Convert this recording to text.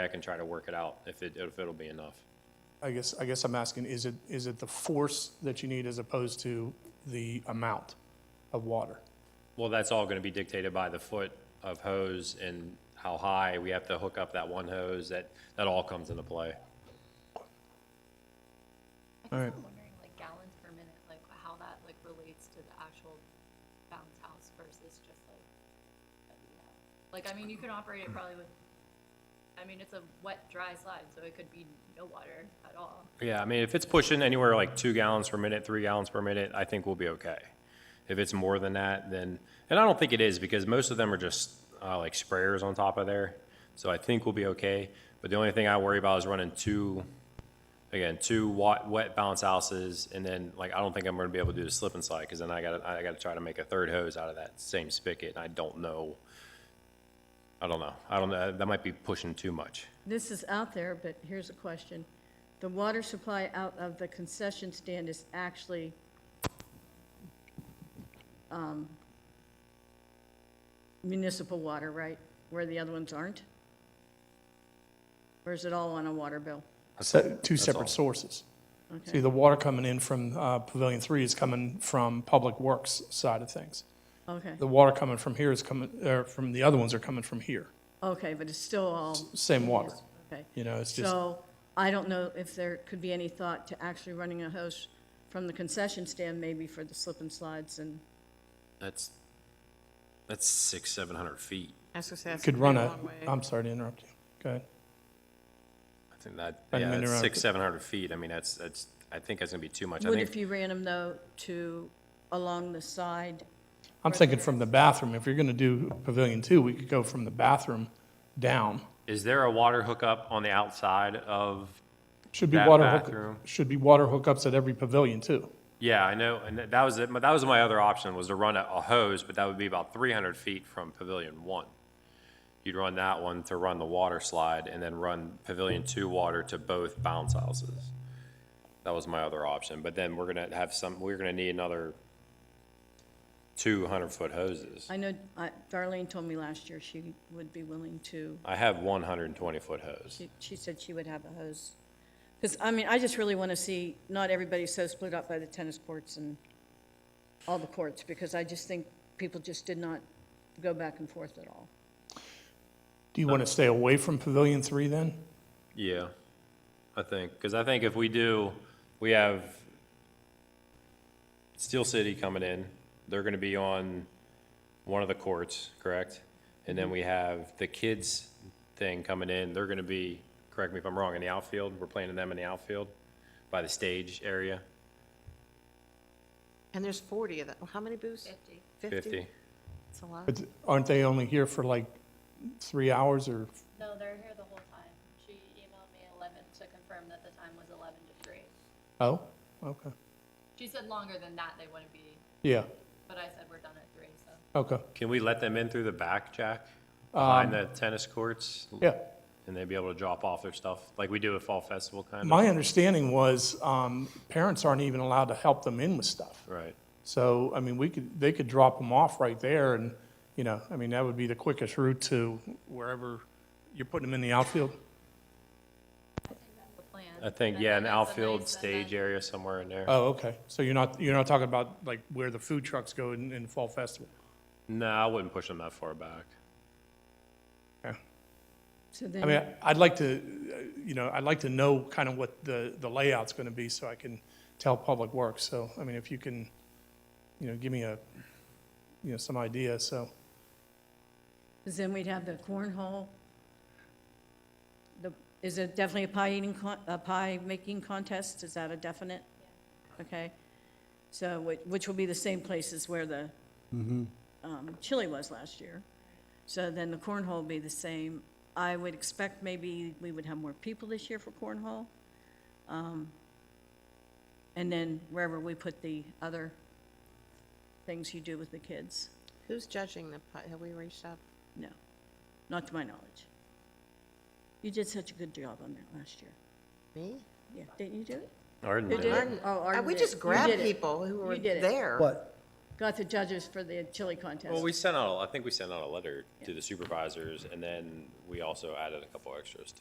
back and try to work it out, if it, if it'll be enough. I guess, I guess I'm asking, is it, is it the force that you need as opposed to the amount of water? Well, that's all gonna be dictated by the foot of hose and how high we have to hook up that one hose, that, that all comes into play. All right. I'm wondering, like gallons per minute, like how that like relates to the actual bounce house versus just like, that we have. like, I mean, you can operate it probably with, I mean, it's a wet, dry slide, so it could be no water at all. Yeah, I mean, if it's pushing anywhere like two gallons per minute, three gallons per minute, I think we'll be okay. If it's more than that, then, and I don't think it is, because most of them are just, uh, like sprayers on top of there. So I think we'll be okay, but the only thing I worry about is running two, again, two wa- wet bounce houses, and then, like, I don't think I'm gonna be able to do the slip and slide, cause then I gotta, I gotta try to make a third hose out of that same spigot, and I don't know. I don't know, I don't know, that might be pushing too much. This is out there, but here's a question. The water supply out of the concession stand is actually um, municipal water, right? Where the other ones aren't? Or is it all on a water bill? Se- Two all. separate sources. See, Okay, the water coming in from uh, Pavilion Three is coming from Public Works side of things. okay, The water coming from here is coming, or from the other ones are coming from here. okay, but it's still all, Same water, okay. you know, it's just, So I don't know if there could be any thought to actually running a hose from the concession stand maybe for the slip and slides and, That's, that's six, seven hundred feet. I was gonna say, that's could gonna run be a, long way. I'm sorry to interrupt you. Go ahead. I think that, I yeah, didn't mean to that's six, interrupt. seven hundred feet, I mean, that's, that's, I think that's gonna be too much. I Would if think, you ran them though to along the side? I'm thinking from the bathroom, if you're going to do Pavilion Two, we could go from the bathroom down. is there a water hookup on the outside of, Should be That water bathroom. hook, should be water hookups at every pavilion too. yeah, I know, and that that was, it. that was my other option, was to run a a hose, but that would be about three hundred feet from pavilion one. You'd run that one to run the water slide, and then run pavilion two water to both bounce houses. That was my other option, but then we're gonna have some, we're gonna need another two hundred-foot hoses. I know I- Darlene told me last year she would be willing to, I have one hundred and twenty-foot hose. she- she said she would have a hose. Because, I mean, I just really want to see, not everybody's so split up by the tennis courts and all the courts, because I just think people just did not go back and forth at all. Do you want to stay away from pavilion three then? Yeah, I think, because I think if we do, we have Steel City coming in, they're gonna be on one of the courts, correct? And then we have the kids thing coming in, they're gonna be, correct me if I'm wrong, in the outfield, we're playing them in the outfield by the stage area, And there's 40 of them. How many booths? Fifty. 50. It's a lot. But aren't they only here for like three hours or, No, they're here the whole time. She emailed me eleven to confirm that the time was eleven to three. oh, okay. She said longer than that, they wouldn't be, Yeah, but I said we're done at three, so. okay, Can we let them in through the back, Jack? Behind the tennis courts? Um, yeah. And they'd be able to drop off their stuff, like we do at Fall Festival, kind of? My understanding was, um, parents aren't even allowed to help them in with stuff. Right. So, I mean, we could, they could drop them off right there and, you know, I mean, that would be the quickest route to wherever, you're putting them in the outfield? The plan. I think, And yeah, then an that's a outfield nice- and stage then- area somewhere in there. Oh, okay. So you're not, you're not talking about like where the food trucks go in, in Fall Festival? No, I wouldn't push them that far back. So I mean, then, I'd like to, uh, you know, I'd like to know kind of what the, the layout's going to be so I can tell Public Works. So, I mean, if you can, you know, give me a, you know, some idea, so. 'cause then we'd have the cornhole. The- Is it definitely a pie eating, con- a pie making contest? Is that a definite? Okay. So, which, which will be the same places where the um, chili was last year. So then the cornhole will be the same. I would expect maybe we would have more people this year for cornhole. Um, And then wherever we put the other things you do with the kids. Who's judging the, pi- have we reached out? No, not to my knowledge. You did such a good job on that last year. Me? Uh, Yeah, didn't you do it? Arden Who did did it. it? Oh, Arden We did it. just You grabbed did it. people who were You did it. there. What? Got the judges for the chili contest. Well, we sent out, I think we sent out a letter to the supervisors, and then we also added a couple extras to